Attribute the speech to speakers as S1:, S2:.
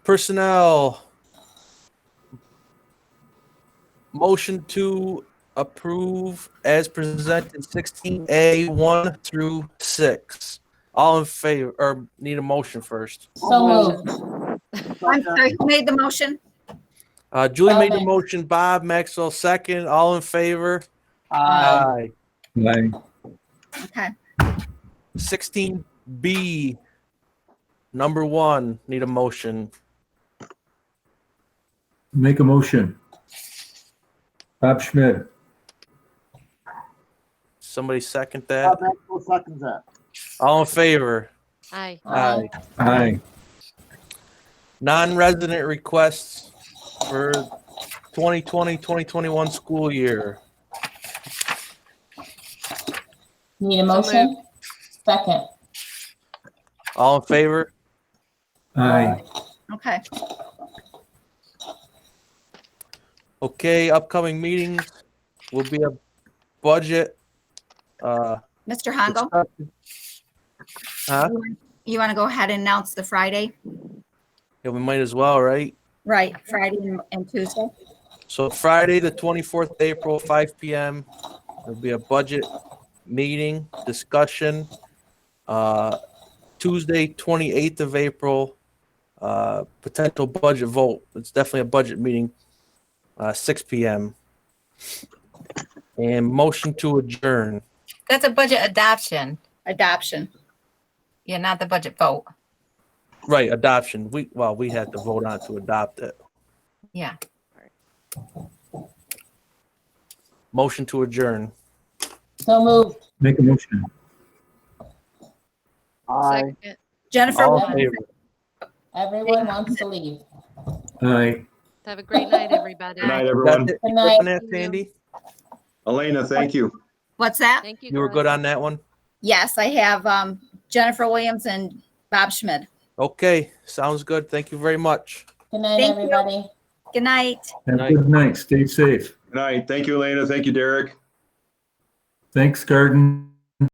S1: Personnel. Motion to approve as presented sixteen A one through six. All in favor, or need a motion first.
S2: So moved.
S3: I'm sorry, who made the motion?
S1: Uh, Julie made the
S2: Okay.
S1: motion, Bob Maxwell second, all in favor?
S2: Aye.
S4: Aye.
S3: Okay,
S1: Sixteen B, number one, need a motion.
S4: Make a motion. Bob Schmidt.
S1: Somebody second that,
S5: Bob Maxwell seconds that.
S1: all in favor?
S6: Aye.
S2: Aye.
S4: Aye.
S1: non-resident requests for 2020-2021 school year.
S2: Need a motion? Second.
S1: All in favor?
S4: Aye.
S3: okay.
S1: Okay, upcoming meetings will be a budget. uh,
S3: Mr. Hongo,
S1: discussion. Huh?
S3: you want to go ahead and announce the Friday?
S1: Yeah, we might as well, right?
S3: Right, Friday and- and Tuesday?
S1: So Friday, the 24th of April, 5 PM, there'll be a budget meeting, discussion. Uh, Tuesday, 28th of April, uh, potential budget vote. It's definitely a budget meeting, uh, 6 PM. And motion to adjourn.
S6: That's a budget adoption.
S3: Adoption.
S6: Yeah, not the budget vote.
S1: Right, adoption. We, well, we had to vote on to adopt it.
S6: Yeah.
S1: Motion to adjourn.
S2: So moved.
S4: Make a motion.
S5: Aye.
S3: Jennifer,
S1: All
S2: Aye.
S1: in favor?
S2: Everyone wants to leave.
S4: Aye.
S7: Have a great night, everybody.
S8: Good night,
S1: That's
S8: everyone.
S1: it.
S2: Good
S1: You
S2: night.
S1: good on that, Sandy?
S8: Elena, thank you.
S3: what's that?
S7: Thank you.
S1: You were
S7: girls.
S1: good on that one?
S3: Yes, I have um, Jennifer Williams and Bob Schmidt.
S1: Okay, sounds good. Thank you very much.
S2: Good night,
S3: Thank you.
S2: everybody.
S3: Good night.
S4: Have
S1: Aye.
S4: a good night. Stay safe.
S8: Good night. Thank you, Elena. Thank you, Derek.
S4: Thanks, Garden.